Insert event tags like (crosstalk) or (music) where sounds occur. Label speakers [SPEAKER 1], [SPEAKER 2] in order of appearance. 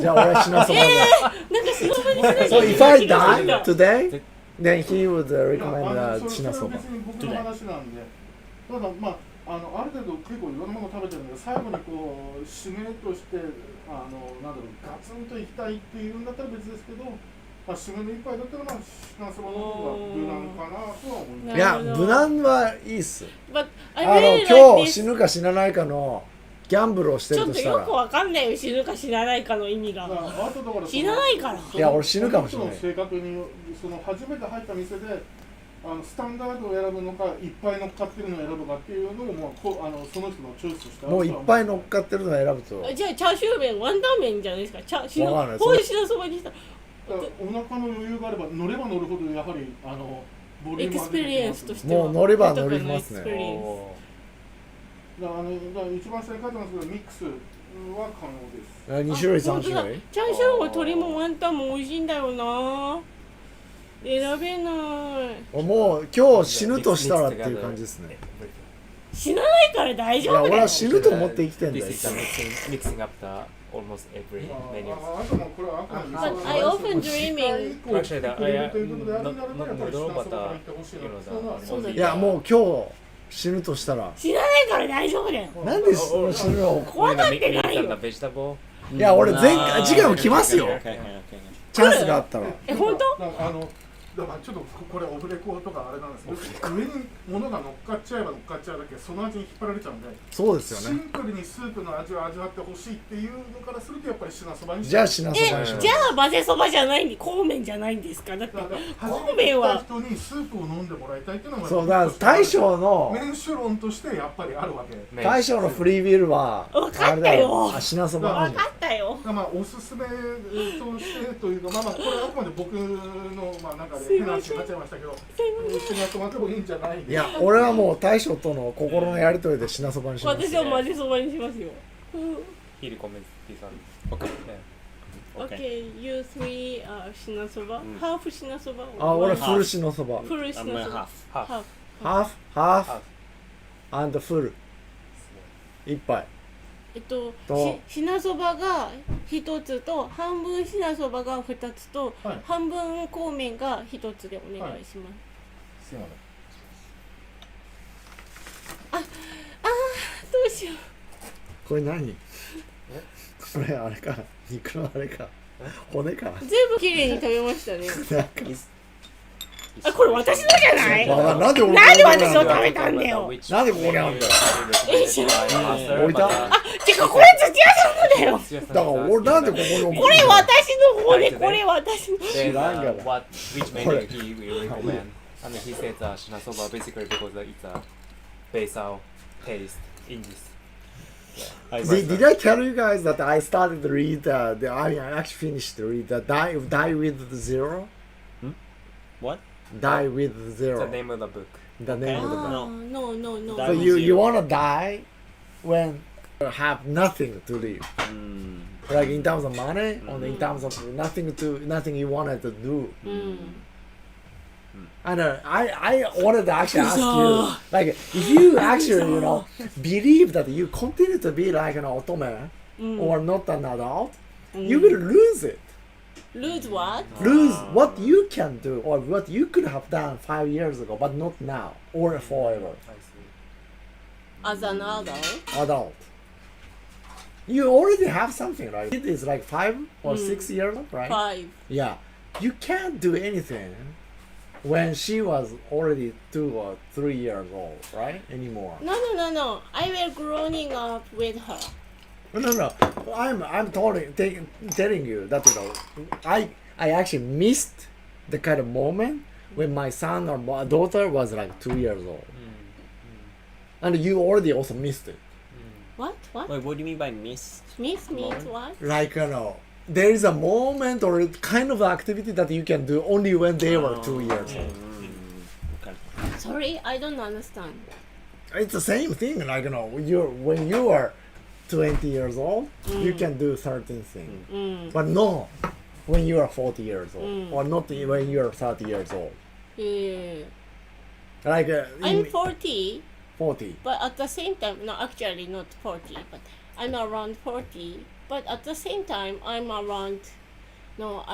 [SPEAKER 1] じゃあ俺は死なそうなんだ。
[SPEAKER 2] なんか忍ばにしない
[SPEAKER 1] So
[SPEAKER 2] とい
[SPEAKER 1] if
[SPEAKER 2] けな
[SPEAKER 1] I
[SPEAKER 2] い気
[SPEAKER 1] die
[SPEAKER 2] がするな
[SPEAKER 1] today, then he would uh,
[SPEAKER 3] いやあ
[SPEAKER 1] recommend
[SPEAKER 3] の
[SPEAKER 1] uh, シナそば
[SPEAKER 3] それは別に僕の話なんでただまああのある程度結構いろんなもの食べてるんで最後にこう締めとしてあのなんだろうガツンといきたいっていうんだったら別ですけど、まあ、締めの一杯だったらまあシナそばの方が無難かなとは思いま
[SPEAKER 1] い
[SPEAKER 2] な
[SPEAKER 3] す
[SPEAKER 2] る
[SPEAKER 1] や
[SPEAKER 2] ほど
[SPEAKER 1] 無難はいいっす
[SPEAKER 2] But
[SPEAKER 1] あ
[SPEAKER 2] I
[SPEAKER 1] の
[SPEAKER 2] really
[SPEAKER 1] 今
[SPEAKER 2] like
[SPEAKER 1] 日死
[SPEAKER 2] this
[SPEAKER 1] ぬか死なないかのギャンブルをしてる
[SPEAKER 2] ちょっ
[SPEAKER 1] と
[SPEAKER 2] と
[SPEAKER 1] した
[SPEAKER 2] よ
[SPEAKER 1] ら
[SPEAKER 2] くわかんないよ死ぬか死なないかの意味
[SPEAKER 3] だ
[SPEAKER 2] が
[SPEAKER 3] からあとだからその
[SPEAKER 2] 死なないから
[SPEAKER 3] そ
[SPEAKER 1] い
[SPEAKER 3] の
[SPEAKER 1] や俺死ぬかもしれない
[SPEAKER 3] その人の正確にその初めて入った店であのスタンダードを選ぶのかいっぱい乗っかってるのを選ぶかっていうのも、まあ、こうあのその人のチョイスとしてあると
[SPEAKER 1] も
[SPEAKER 3] は
[SPEAKER 1] うい
[SPEAKER 3] 思
[SPEAKER 1] っぱい乗っかってるのを選ぶと
[SPEAKER 2] じゃあチャーシュー麺ワンタン麺じゃないですかチャーシュ
[SPEAKER 1] わかんない
[SPEAKER 2] ーほうじしのそばにしたら
[SPEAKER 3] だからお腹の余裕があれば乗れば乗るほどやはりあのボ
[SPEAKER 2] エ
[SPEAKER 3] リューム
[SPEAKER 2] ク
[SPEAKER 3] が
[SPEAKER 2] ス
[SPEAKER 3] 出
[SPEAKER 2] ペ
[SPEAKER 3] てきます
[SPEAKER 2] リエンスとしては
[SPEAKER 1] もう乗れば乗ります
[SPEAKER 2] 豊かなエクスペリエ
[SPEAKER 1] ね
[SPEAKER 2] ンス
[SPEAKER 3] だからあのだから一番正解なんですけどミックスは
[SPEAKER 1] あ
[SPEAKER 3] 可能です
[SPEAKER 1] 二種類三
[SPEAKER 2] あ本当
[SPEAKER 1] 種
[SPEAKER 2] だ
[SPEAKER 1] 類
[SPEAKER 2] チャーシューも鶏もワンタンも美味しいんだよな選べない
[SPEAKER 1] もう今日死ぬとしたらっていう感じですね
[SPEAKER 2] 死なないから大
[SPEAKER 1] い
[SPEAKER 2] 丈
[SPEAKER 1] や
[SPEAKER 2] 夫だ
[SPEAKER 1] 俺
[SPEAKER 2] よ
[SPEAKER 1] は死ぬと思って生きてんだよ
[SPEAKER 4] This is the mixing, mixing up the almost every
[SPEAKER 3] ま
[SPEAKER 4] menu.
[SPEAKER 3] あああともうこれはあくまで
[SPEAKER 2] But I often
[SPEAKER 3] 一回以
[SPEAKER 2] dreaming
[SPEAKER 3] 降来てくれるということであるならばやっぱり下の方から行ってほしいなっていうのはあります
[SPEAKER 2] そうだよ
[SPEAKER 1] いやもう今日死ぬとしたら
[SPEAKER 2] 死なないから大丈夫だよ
[SPEAKER 1] なんで死ぬ死ぬの
[SPEAKER 2] 怖がっ
[SPEAKER 4] Meat-
[SPEAKER 2] てない
[SPEAKER 4] meat and the
[SPEAKER 2] よ
[SPEAKER 4] vegetable.
[SPEAKER 1] いや俺前回次回も来ますよ
[SPEAKER 4] Okay, okay,
[SPEAKER 1] チャンスがあったら
[SPEAKER 2] え本当
[SPEAKER 3] なんかあのだからちょっとここれオフレコとかあれなんですけど上に物が乗っかっちゃえば乗っかっちゃうだけその味に引っ張られちゃうんで
[SPEAKER 1] そうです
[SPEAKER 3] シ
[SPEAKER 1] よ
[SPEAKER 3] ン
[SPEAKER 1] ね
[SPEAKER 3] プルにスープの味を味わってほしいっていうのからするとやっぱり品そばに
[SPEAKER 1] じゃあシナそばにし
[SPEAKER 2] え
[SPEAKER 1] ます
[SPEAKER 2] じゃあ混ぜそばじゃないんでこうめんじゃないんですかだって
[SPEAKER 3] だから
[SPEAKER 2] こ
[SPEAKER 3] 初
[SPEAKER 2] う
[SPEAKER 3] め
[SPEAKER 2] めん
[SPEAKER 3] て来た
[SPEAKER 2] は
[SPEAKER 3] 人にスープを飲んでもらいたいっていうのが
[SPEAKER 1] そうだから大将の
[SPEAKER 3] 麺主論としてやっぱりあるわけだ
[SPEAKER 4] okay.
[SPEAKER 1] 大将のフリービールは
[SPEAKER 2] わかったよ
[SPEAKER 1] あれだあ品そば
[SPEAKER 2] 分かったよ
[SPEAKER 3] からまあおすすめとしてというかまあまあこれはあくまで僕のまあなんかで変な話になっちゃいましたけど一緒にやってもらってもいいんじゃない
[SPEAKER 1] いや俺はもう大将との心のやりとりで品そばにします
[SPEAKER 2] 私は混ぜそばにしますようん
[SPEAKER 4] He recommends this one.
[SPEAKER 5] Okay.
[SPEAKER 2] Okay, you three are しなそば
[SPEAKER 5] うん
[SPEAKER 2] half しなそば
[SPEAKER 1] あ俺フル品そば
[SPEAKER 2] フルし
[SPEAKER 5] I'm
[SPEAKER 2] なそ
[SPEAKER 5] uh,
[SPEAKER 2] ば
[SPEAKER 5] half.
[SPEAKER 4] Half.
[SPEAKER 2] half
[SPEAKER 1] ハーフハー
[SPEAKER 4] ハ
[SPEAKER 1] フアンドフル一杯
[SPEAKER 2] えっと、
[SPEAKER 1] と
[SPEAKER 2] し品そばが一つと半分品そばが二つと、
[SPEAKER 3] はい
[SPEAKER 2] 半分こうめんが一つでお願いします、
[SPEAKER 3] すいません
[SPEAKER 2] どうしよ
[SPEAKER 1] これ何これあれか肉のあれか骨か
[SPEAKER 2] う全部綺麗に食べましたね
[SPEAKER 1] なんか
[SPEAKER 2] (laughs) あこれ私のじゃない
[SPEAKER 1] わかんなんで俺
[SPEAKER 2] なんで
[SPEAKER 1] ここにあ
[SPEAKER 2] 私の
[SPEAKER 1] んだ
[SPEAKER 2] 食べたんだよ
[SPEAKER 4] Which
[SPEAKER 1] なんでここにあんだよ
[SPEAKER 4] menu is recommended by
[SPEAKER 1] 置いた
[SPEAKER 4] master,
[SPEAKER 2] てかこれ土屋さんのだよ
[SPEAKER 4] but,
[SPEAKER 1] だ
[SPEAKER 4] uh,
[SPEAKER 1] から俺なんでここに置くの
[SPEAKER 2] これ私の骨これ私の
[SPEAKER 4] Then,
[SPEAKER 1] 知ら
[SPEAKER 4] uh,
[SPEAKER 1] んがな。
[SPEAKER 4] what, which menu he will recommend? I mean, he said uh, shinasoba basically because uh, it's a basal taste in this.
[SPEAKER 1] Did, did I tell you guys that I started to read uh, the I, mean, I actually finished to read the die die with the zero?
[SPEAKER 5] Hmm? What?
[SPEAKER 1] Die with the
[SPEAKER 4] It's
[SPEAKER 1] zero.
[SPEAKER 4] the name of the book.
[SPEAKER 1] The name of the book.
[SPEAKER 2] Ah, no no
[SPEAKER 1] そ
[SPEAKER 2] no
[SPEAKER 5] Die
[SPEAKER 1] う
[SPEAKER 5] with
[SPEAKER 1] you you
[SPEAKER 5] zero.
[SPEAKER 1] wanna die when you have nothing to live.
[SPEAKER 5] Mm.
[SPEAKER 1] Like in terms of money, or in terms of nothing to nothing you wanted to do.
[SPEAKER 2] うん、
[SPEAKER 1] I know. I I wanted to actually ask you,
[SPEAKER 2] Kuzo.
[SPEAKER 1] like, if you actually you know believe that you continue to be like an otome
[SPEAKER 2] うん
[SPEAKER 1] or not an adult,
[SPEAKER 2] うん、
[SPEAKER 1] you will lose it.
[SPEAKER 2] lose what
[SPEAKER 1] lose what you can do or what you could have done five years ago, but not now or forever.
[SPEAKER 4] I see.
[SPEAKER 2] as an adult
[SPEAKER 1] Adult. You already have something, right? It is like five or six years old, right?
[SPEAKER 2] five
[SPEAKER 1] Yeah. You can't do anything when she was already two or three years old, right? Anymore.
[SPEAKER 2] no no no no I will growing up with her
[SPEAKER 1] No, no, no. I'm I'm telling t- telling you that you know, I I actually missed the kind of moment when my son or my daughter was like two years old, and you already also missed it.
[SPEAKER 2] what what
[SPEAKER 5] Wait, what do you mean by miss?
[SPEAKER 2] miss means what
[SPEAKER 1] Like you know, there is a moment or kind of activity that you can do only when they were two years old.
[SPEAKER 2] sorry I don't understand
[SPEAKER 1] It's the same thing. Like you know, you when you are twenty years old, you can do certain things,
[SPEAKER 2] うん。
[SPEAKER 1] but no, when you are forty years old,
[SPEAKER 2] Mm.
[SPEAKER 1] or not when you are thirty years old.
[SPEAKER 2] Yeah.
[SPEAKER 1] Like uh,
[SPEAKER 2] Uh,
[SPEAKER 1] in
[SPEAKER 2] I'm 40,
[SPEAKER 1] 40.
[SPEAKER 2] but at the same time, no, actually not 40, but I'm around 40 But at the same time, I'm around. No,